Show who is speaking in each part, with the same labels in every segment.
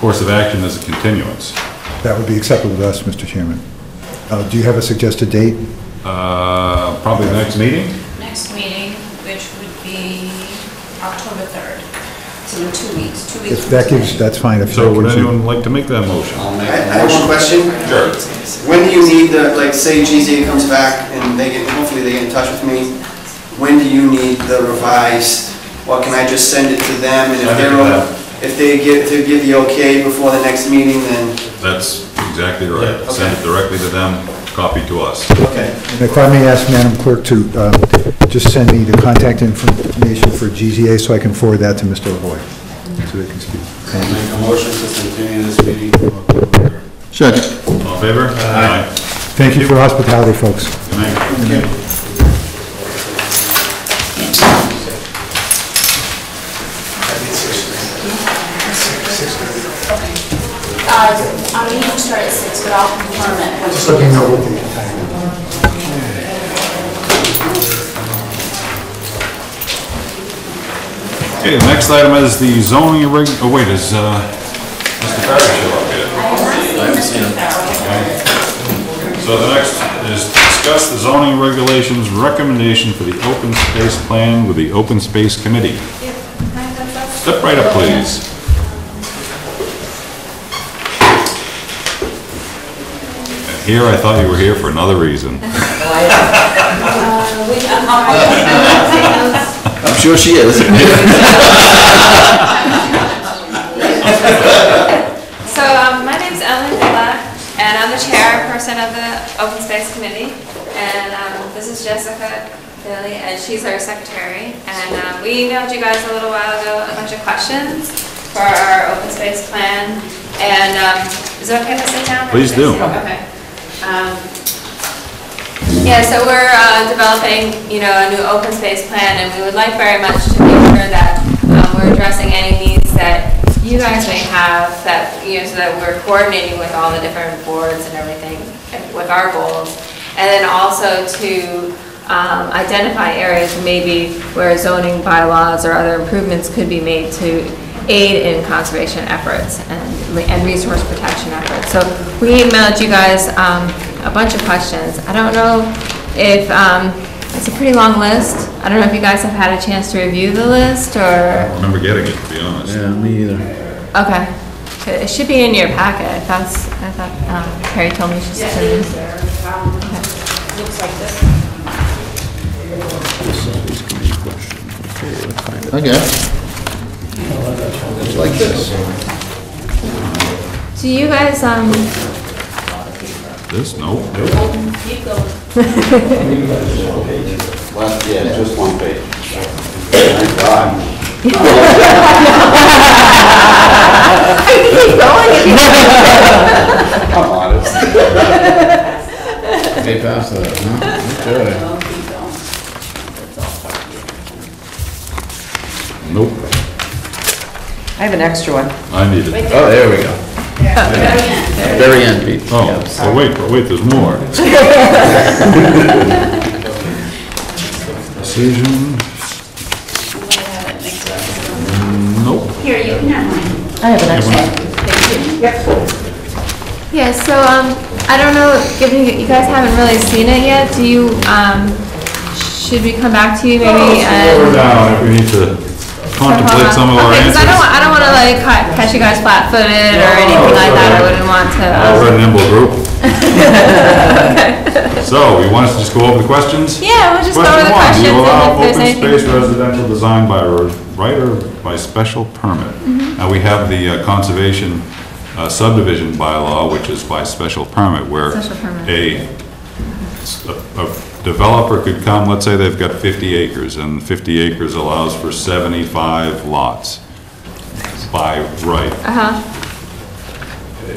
Speaker 1: course of action is a continuance.
Speaker 2: That would be acceptable to us, Mr. Chairman. Uh, Do you have a suggested date?
Speaker 1: Uh, Probably the next meeting?
Speaker 3: Next meeting, which would be October 3rd. It's in two weeks, two weeks
Speaker 2: If
Speaker 3: from
Speaker 2: that gives,
Speaker 3: today.
Speaker 2: that's fine. If
Speaker 1: So
Speaker 2: that
Speaker 1: would
Speaker 2: gives you-
Speaker 1: anyone like to make that motion?
Speaker 4: I'll
Speaker 5: I
Speaker 4: make
Speaker 5: I
Speaker 4: a
Speaker 5: have
Speaker 4: motion.
Speaker 5: one question.
Speaker 1: Sure.
Speaker 5: When do you need the, like, say GZA comes back and they get, hopefully they get in touch with me, when do you need the revised, or can I just send it to them? And if
Speaker 1: Send it
Speaker 5: they're,
Speaker 1: to them.
Speaker 5: if they give, to give the okay before the next meeting, then,
Speaker 1: That's exactly right.
Speaker 5: Yeah,
Speaker 1: Send it
Speaker 5: okay.
Speaker 1: directly to them, copy to us.
Speaker 5: okay.
Speaker 2: And If I may ask Madam Clerk to uh, just send me the contact information for GZA so I can forward that to Mr. Lavoy, so they can speak.
Speaker 4: I'll make a motion to continue this meeting to October third.
Speaker 1: All in favor? Aye.
Speaker 2: Thank you for hospitality, folks.
Speaker 1: Good night.
Speaker 3: Uh, I'm meeting to start at 6, but I'll confirm it. Just let me know what
Speaker 1: Okay, the next item is the zoning reg, oh wait, is, uh, Mr. Farrow show up yet? So the next is discuss the zoning regulations recommendation for the open space plan with the open space committee. Step right up, please. Here, I thought you were here for another reason.
Speaker 3: Uh, we, I'm already-
Speaker 6: I'm sure she is.
Speaker 7: So, um, my name's Ellen Villa, and I'm the chairperson of the Open Space Committee. And, um, this is Jessica Bailey, and she's our secretary. And, um, we emailed you guys a little while ago a bunch of questions for our open space plan. And, um, is it okay to sit down?
Speaker 1: Please do.
Speaker 7: Okay. Um, yeah, so we're uh, developing, you know, a new open space plan, and we would like very much to make sure that um, we're addressing any needs that you guys may have, that, you know, so that we're coordinating with all the different boards and everything with our goals. And then also to um, identify areas maybe where zoning bylaws or other improvements could be made to aid in conservation efforts and, and resource protection efforts. So we emailed you guys um, a bunch of questions. I don't know if, um, it's a pretty long list. I don't know if you guys have had a chance to review the list or,
Speaker 1: I remember getting it, to be honest.
Speaker 6: me either.
Speaker 7: okay. It should be in your packet. That's, I thought um, Carrie told me she's.
Speaker 3: Yeah, it is there. Um, Looks like this.
Speaker 6: Okay. It's like this.
Speaker 7: Do you guys, um,
Speaker 1: This, no?
Speaker 3: Keep going.
Speaker 4: Last, yeah, just one page. Thank God.
Speaker 7: I can keep going if you
Speaker 4: I'm honest.
Speaker 6: Hey, pass that, huh? Okay.
Speaker 3: Don't keep going. That's all.
Speaker 1: Nope.
Speaker 8: I have an extra one.
Speaker 1: I need it.
Speaker 6: Oh, there we go. Very end, Pete.
Speaker 1: Oh, well, wait, but wait, there's more. Decision, nope.
Speaker 3: Here, you can have mine.
Speaker 8: I have an extra.
Speaker 7: Yeah, so, um, I don't know, given you you guys haven't really seen it yet, do you, um, should we come back to you maybe?
Speaker 1: We're
Speaker 7: and-
Speaker 1: down, if we need to contemplate some of our
Speaker 7: Uh-huh. Okay, 'cause I don't, wa-
Speaker 1: answers.
Speaker 7: I don't wanna like ca- catch you guys flat-footed or anything like that, I wouldn't want to.
Speaker 1: Uh,
Speaker 7: um,
Speaker 1: We're a nimble group. So, you want us to just go over the questions?
Speaker 7: Yeah, we'll just go over the
Speaker 1: Question one, do you allow
Speaker 7: questions and if there's
Speaker 1: open space
Speaker 7: anything.
Speaker 1: residential design by r- right or by special permit?
Speaker 7: Mm-hmm.
Speaker 1: Now, we have the uh, conservation uh, subdivision bylaw, which is by special permit, where
Speaker 7: Special permit.
Speaker 1: a s- a- a developer could come, let's say they've got 50 acres, and 50 acres allows for 75 lots by right
Speaker 7: Uh-huh,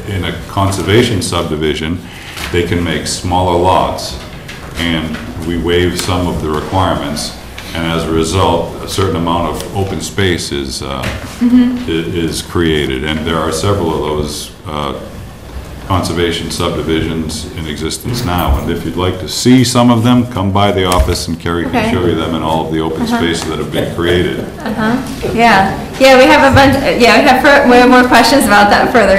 Speaker 1: in a conservation subdivision, they can make smaller lots, and we waive some of the requirements, and as a result, a certain amount of open space is, uh, i- is created, and there are several of those uh, conservation subdivisions in existence now, and if you'd like to see some of them, come by the office and Carrie
Speaker 7: Okay.
Speaker 1: can show you them and all of the open spaces that have been created.
Speaker 7: yeah, Yeah, we have a bunch, yeah, we have, fur- we have more questions about that further